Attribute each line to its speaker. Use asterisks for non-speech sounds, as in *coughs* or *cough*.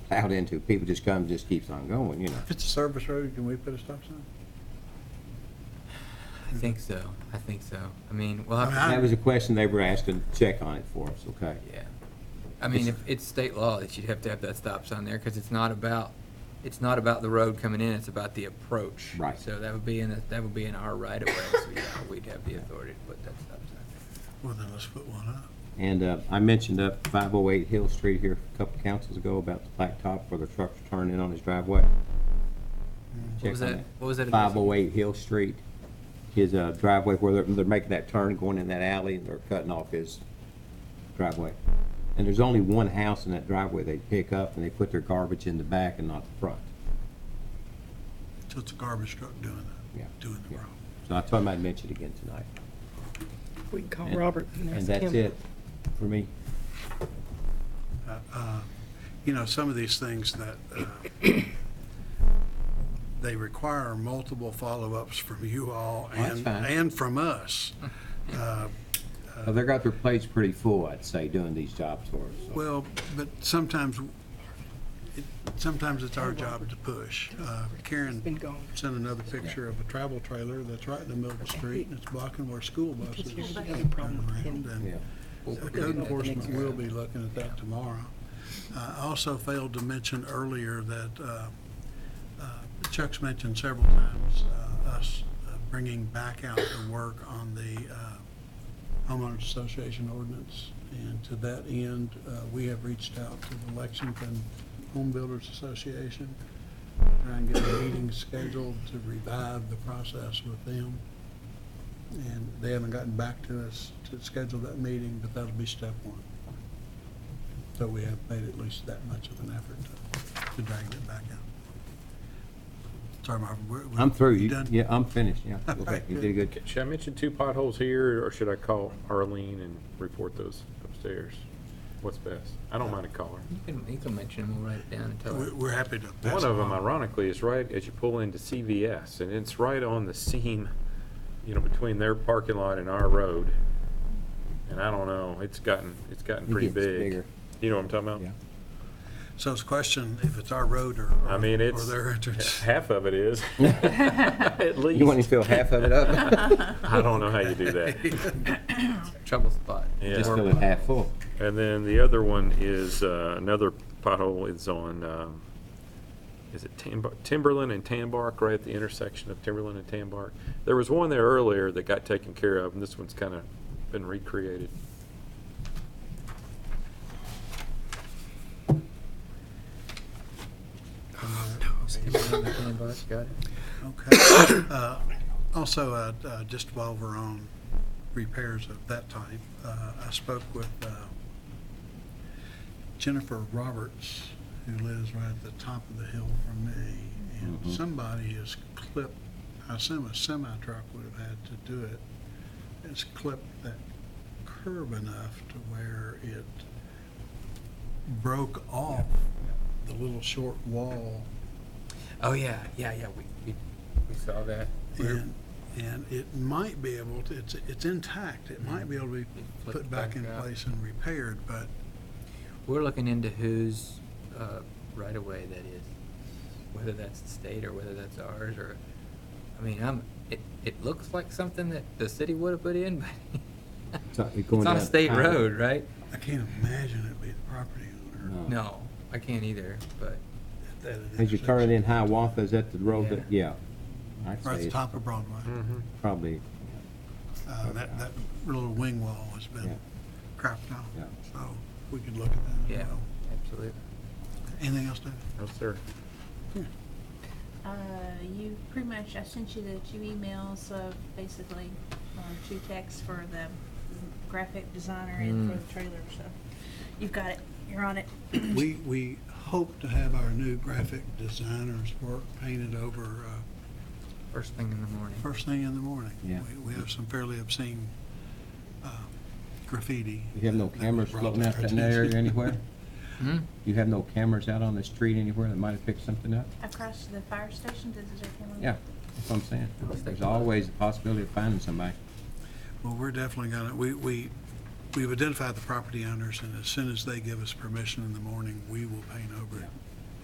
Speaker 1: plowed into, people just come, just keeps on going, you know.
Speaker 2: If it's a service road, can we put a stop sign?
Speaker 3: I think so. I think so. I mean, we'll
Speaker 2: I
Speaker 3: have
Speaker 2: mean,
Speaker 3: to.
Speaker 2: I-
Speaker 1: That was a question they were asked to check on it for us, okay?
Speaker 3: Yeah. I mean, if it's state law that you'd have to have that stop sign there, because it's not about, it's not about the road coming in, it's about the approach.
Speaker 1: Right.
Speaker 3: So that would be in, the- that would be in our right of way, so yeah, we'd have the authority to put that stop sign.
Speaker 2: Well, then let's put one up.
Speaker 1: And uh, I mentioned up 508 Hill Street here a couple councils ago about the blacktop where the trucks were turning in on his driveway.
Speaker 3: Mm. What was
Speaker 1: Check on
Speaker 3: that, what was that? address?
Speaker 1: 508 Hill Street, his uh, driveway where they're, they're making that turn going in that alley and they're cutting off his driveway. And there's only one house in that driveway they pick up and they put their garbage in the back and not the front.
Speaker 2: So it's a garbage truck doing
Speaker 1: Yeah.
Speaker 2: it, doing the
Speaker 1: Yeah.
Speaker 2: road.
Speaker 1: So I told him I'd mention it again tonight.
Speaker 4: We can call
Speaker 1: And-
Speaker 4: Robert and
Speaker 1: And
Speaker 4: ask
Speaker 1: that's
Speaker 4: him.
Speaker 1: it for me.
Speaker 2: Uh, uh, You know, some of these things that uh, they require multiple follow-ups from you all
Speaker 1: that's
Speaker 2: and,
Speaker 1: fine.
Speaker 2: and
Speaker 1: *laughs*
Speaker 2: from us. Uh,
Speaker 1: Well, They got their plates pretty full, I'd say, doing these jobs for us. so.
Speaker 2: Well, but sometimes, it- sometimes it's our job to push. Uh,
Speaker 4: He's
Speaker 2: Karen
Speaker 4: been gone.
Speaker 2: sent another picture of a travel trailer that's right in the middle of the street and it's blocking where school buses
Speaker 4: Here's
Speaker 2: turn
Speaker 4: another problem with
Speaker 2: around.
Speaker 4: him.
Speaker 2: and-
Speaker 1: Yeah.
Speaker 2: The Code enforcement will be looking at that tomorrow. Uh, I also failed to mention earlier that uh, uh, Chuck's mentioned several times uh, us uh, bringing back out the work on the uh, homeowners association ordinance. And to that end, uh, we have reached out to the Lexington Home Builders Association, try and get a meeting scheduled to revive the process with them. And they haven't gotten back to us to schedule that meeting, but that'll be step one. So we have made at least that much of an effort to, to drag it back out. Sorry, Marvin, we're. we're-
Speaker 1: I'm through.
Speaker 2: you
Speaker 1: You-
Speaker 2: done?
Speaker 1: Yeah, I'm finished, yeah.
Speaker 2: All
Speaker 1: Okay,
Speaker 2: right,
Speaker 1: You did good.
Speaker 5: Should I mention two potholes here, or should I call Arlene and report those upstairs? What's best? I don't mind a caller.
Speaker 3: You can, you can mention them, we'll write it down and tell
Speaker 2: We're,
Speaker 3: her.
Speaker 2: we're happy to. pass
Speaker 5: One of them
Speaker 2: along.
Speaker 5: ironically is right as you pull into CVS, and it's right on the seam, you know, between their parking lot and our road. And I don't know, it's gotten, it's gotten
Speaker 1: It
Speaker 5: pretty
Speaker 1: gets
Speaker 5: big.
Speaker 1: bigger.
Speaker 5: You know what I'm talking
Speaker 1: Yeah.
Speaker 5: about?
Speaker 2: So it's a question if it's our road or.
Speaker 5: I mean,
Speaker 2: Or
Speaker 5: it's, *laughs*
Speaker 2: their entrance.
Speaker 5: half of
Speaker 1: *laughs*
Speaker 5: it is, at least.
Speaker 1: You want to fill half of it up?
Speaker 5: I don't know how you
Speaker 1: *laughs*
Speaker 5: do that.
Speaker 2: *laughs*
Speaker 3: Trouble spot.
Speaker 5: Yeah.
Speaker 1: Just
Speaker 3: Or-
Speaker 1: fill it half full.
Speaker 5: And then the other one is, uh, another pothole is on, um, is it Tambar, Timberland and Tambark, right at the intersection of Timberland and Tambark? There was one there earlier that got taken care of, and this one's kind of been recreated.
Speaker 3: Got it.
Speaker 2: Okay. *coughs* Uh, Also, uh, uh, just while we're on repairs of that type, uh, I spoke with uh, Jennifer Roberts, who lives right at the top of the hill from me, and
Speaker 1: Mhm.
Speaker 2: somebody has clipped, I assume a semi-truck would have had to do it, has clipped that curb enough to where it broke off the little short wall
Speaker 3: Oh, yeah, yeah, yeah, we, we, we saw that. We're-
Speaker 2: And, and it might be able to, it's, it's intact, it might be able to be
Speaker 3: Flip
Speaker 2: put back in
Speaker 3: out.
Speaker 2: place and repaired, but
Speaker 3: We're looking into whose uh, right of way that is, whether that's the state or whether that's ours or, I mean, I'm, it, it looks like something that the city would have put in, *laughs* but
Speaker 1: It's not- it's going
Speaker 3: it's on a
Speaker 1: down-
Speaker 3: state road, right?
Speaker 2: I can't imagine it'd be the property owner.
Speaker 1: No.
Speaker 3: No, I can't either, but
Speaker 2: at that
Speaker 1: As you turn
Speaker 2: intersection.
Speaker 1: in Hiawatha, is that the road that, yeah. I'd
Speaker 2: Right at
Speaker 1: say
Speaker 2: the
Speaker 1: it's
Speaker 2: top of Broadway.
Speaker 5: Mm.
Speaker 1: probably,
Speaker 2: Uh, that, that little wing wall has
Speaker 1: Yeah.
Speaker 2: been crapped out,
Speaker 1: Yeah.
Speaker 2: so we could look at that
Speaker 3: yeah,
Speaker 2: as well.
Speaker 3: absolutely.
Speaker 2: Anything else, Dave?
Speaker 5: That's there.
Speaker 6: Uh, you pretty much, I sent you the two emails of basically, uh, two texts for the graphic designer and for
Speaker 3: Mm.
Speaker 6: the trailer, so you've got it, you're on it.
Speaker 2: We, we hope to have our new graphic designer's work painted over uh,
Speaker 3: First thing in the morning.
Speaker 2: first thing in the morning.
Speaker 1: Yeah.
Speaker 2: We- We have some fairly obscene um, graffiti.
Speaker 1: you have no
Speaker 2: that we
Speaker 1: cameras
Speaker 2: brought
Speaker 1: floating
Speaker 2: to
Speaker 1: out
Speaker 2: our
Speaker 1: in that area
Speaker 2: attention.
Speaker 1: anywhere?
Speaker 3: Hmm?
Speaker 1: You have no cameras out on the street anywhere that might have picked something up?
Speaker 6: Across the fire station, does it come on?
Speaker 1: Yeah, that's what I'm saying.
Speaker 3: Let's take
Speaker 1: There's
Speaker 3: a look.
Speaker 1: always the possibility of finding somebody.
Speaker 2: *laughs* Well, we're definitely gonna, we, we, we've identified the property owners, and as soon as they give us permission in the morning, we will paint over it